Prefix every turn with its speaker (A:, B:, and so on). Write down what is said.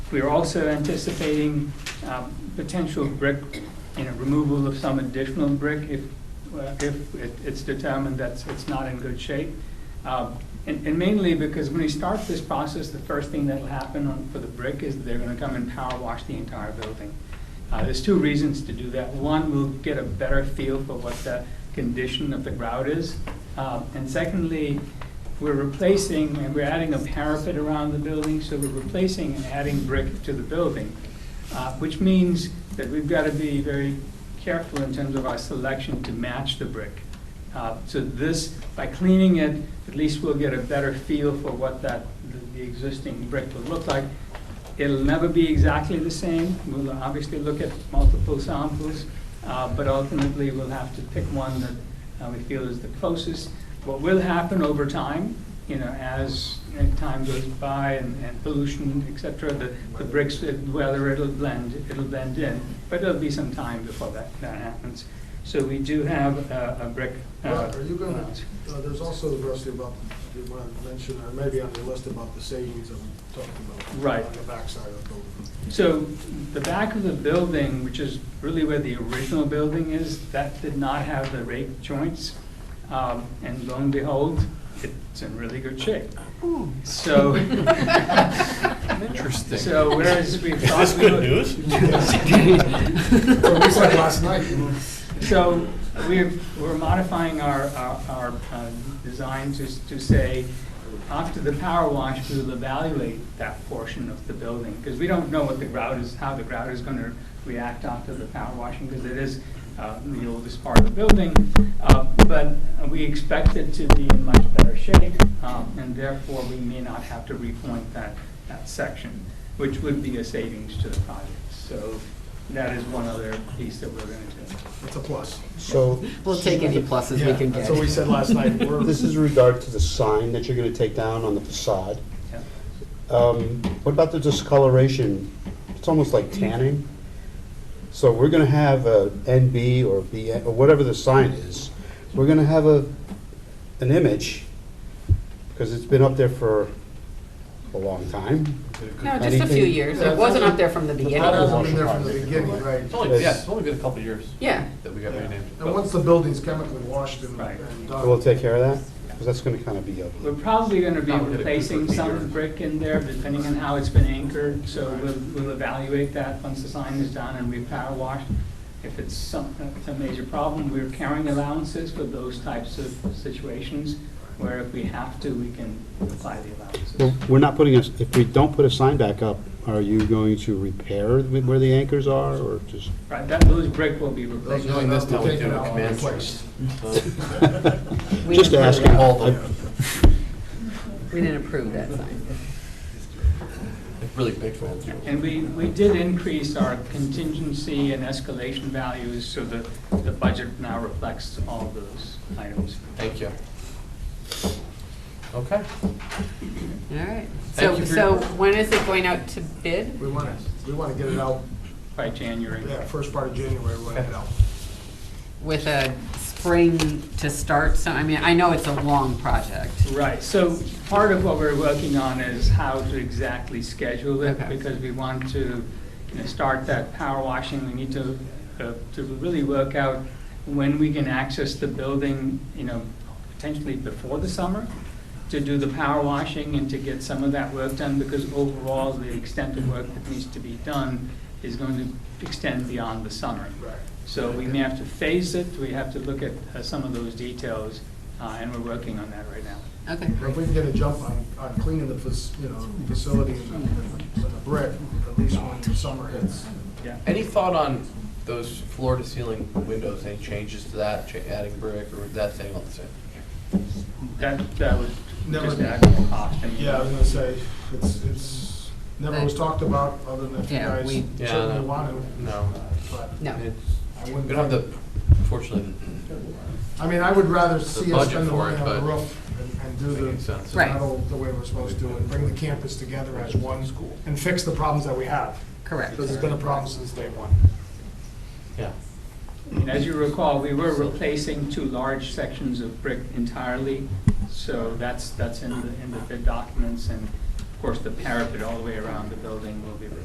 A: We're also anticipating um, potential brick, you know, removal of some additional brick if, uh, if it- it's determined that it's not in good shape. Um, And and mainly because when we start this process, the first thing that'll happen on- for the brick is they're going to come and power wash the entire building. Uh, There's two reasons to do that. One, we'll get a better feel for what the condition of the grout is. Uh, And secondly, we're replacing, and we're adding a parapet around the building, so we're replacing and adding brick to the building, uh, which means that we've got to be very careful in terms of our selection to match the brick. Uh, So this, by cleaning it, at least we'll get a better feel for what that, the- the existing brick will look like. It'll never be exactly the same. We'll obviously look at multiple samples, uh, but ultimately, we'll have to pick one that uh, we feel is the closest. What will happen over time, you know, as uh, time goes by and and pollution, et cetera, the the bricks, uh, whether it'll blend, it'll blend in, but it'll be some time before that that happens. So we do have uh, a brick. uh,
B: Right, Are you going
A: uh,
B: to, there's also, Rusty, about, you might have mentioned, or maybe on your list about the savings that we talked about.
A: Right.
B: On the backside of the building.
A: So the back of the building, which is really where the original building is, that did not have the rake joints. Um, And lo and behold, it's in really good shape. So.
C: Interesting.
A: So whereas we
D: Is
A: thought.
D: this
A: we
D: good
A: would-
D: news?
B: Well, we said last night, you know.
A: So we're, we're modifying our, our, our uh, design to, s- to say, after the power wash, we will evaluate that portion of the building, because we don't know what the grout is, how the grout is gonna react after the power washing, because it is uh, the oldest part of the building. Uh, But we expect it to be in much better shape, um, and therefore we may not have to repoint that, that section, which would be a savings to the project. So that is one other piece that we're gonna do.
B: it's a plus.
E: So
C: We'll take any pluses we
B: Yeah,
C: can
B: That's
C: get.
B: what we said last night. We're-
E: this is regard to the sign that you're going to take down on the facade.
A: Yeah.
E: Um, What about the discoloration? It's almost like tanning. So we're going to have a NB or BN, or whatever the sign is, we're going to have a, an image, because it's been up there for a long time.
C: No, just a few
E: Anything-
C: years. It wasn't up there from the
B: That
C: beginning.
B: hasn't been there from the beginning, right?
D: It's only, yeah, it's only been a couple of years
C: Yeah.
D: that we got
B: Yeah.
D: renamed.
B: And once the building's chemically washed and
A: Right.
B: and done.
E: We'll take care of that, because that's going to kind of be ugly.
A: We're probably going to be
D: Not really,
A: replacing
D: because
A: some
D: we're-
A: brick in there, depending on how it's been anchored, so we'll, we'll evaluate that once the sign is done and we've power washed. If it's some, a major problem, we're carrying allowances for those types of situations, where if we have to, we can apply the
E: Well,
A: allowances.
E: We're not putting a, if we don't put a sign back up, are you going to repair where the anchors are, or just?
A: Right, that, those brick will be
B: Those
A: replaced.
B: are
D: Knowing this, now we
B: taken
D: do a
B: out and
D: command
B: replaced.
C: We
E: Just
C: didn't
E: asking.
C: approve that.
D: All of
C: We didn't approve that sign.
D: Really big fans.
A: And we, we did increase our contingency and escalation values, so the, the budget now reflects all those items.
D: Thank you. Okay.
C: All right.
D: Thank
C: So,
D: you for
C: so
D: your-
C: when is it going out to bid?
B: We want to, we want to get it out,
A: By January.
B: yeah, first part of January, we want to get it out.
C: With a spring to start, so, I mean, I know it's a long project.
A: Right, so part of what we're working on is how to exactly schedule it,
C: Okay.
A: because we want to you know, start that power washing, we need to, uh, to really work out when we can access the building, you know, potentially before the summer, to do the power washing and to get some of that work done, because overall, the extent of work that needs to be done is going to extend beyond the summer.
B: Right.
A: So we may have to phase it, we have to look at uh, some of those details, uh, and we're working on that right now.
C: Okay.
B: If we can get a jump on, on cleaning the, fac- you know, facility and the- and the brick, at least when the summer hits.
A: Yeah.
D: Any thought on those floor to ceiling windows, any changes to that, cha- adding brick or is that staying all the same?
A: That, that was
B: Never-
A: just the actual cost. I mean,
B: Yeah, I was gonna say, it's, it's, never was talked about, other than if you
C: Yeah,
B: guys
C: we-
D: Yeah,
B: certainly
D: no.
B: want to.
D: No.
B: But
C: No.
D: It's,
B: I
D: we
B: wouldn't,
D: don't have the, fortunately,
B: I mean, I would rather see us
D: budget
B: spend the
D: for
B: money
D: it,
B: on the
D: but-
B: roof and- and do
D: Making
B: the
D: sense.
C: Right.
B: metal the way we're supposed to, and bring the campus together as one school, and fix the problems that we have.
C: Correct.
B: Because it's been a problem since day one.
D: yeah.
A: I mean, as you recall, we were replacing two large sections of brick entirely, so that's, that's in the, in the bid documents, and of course, the parapet all the way around the building will be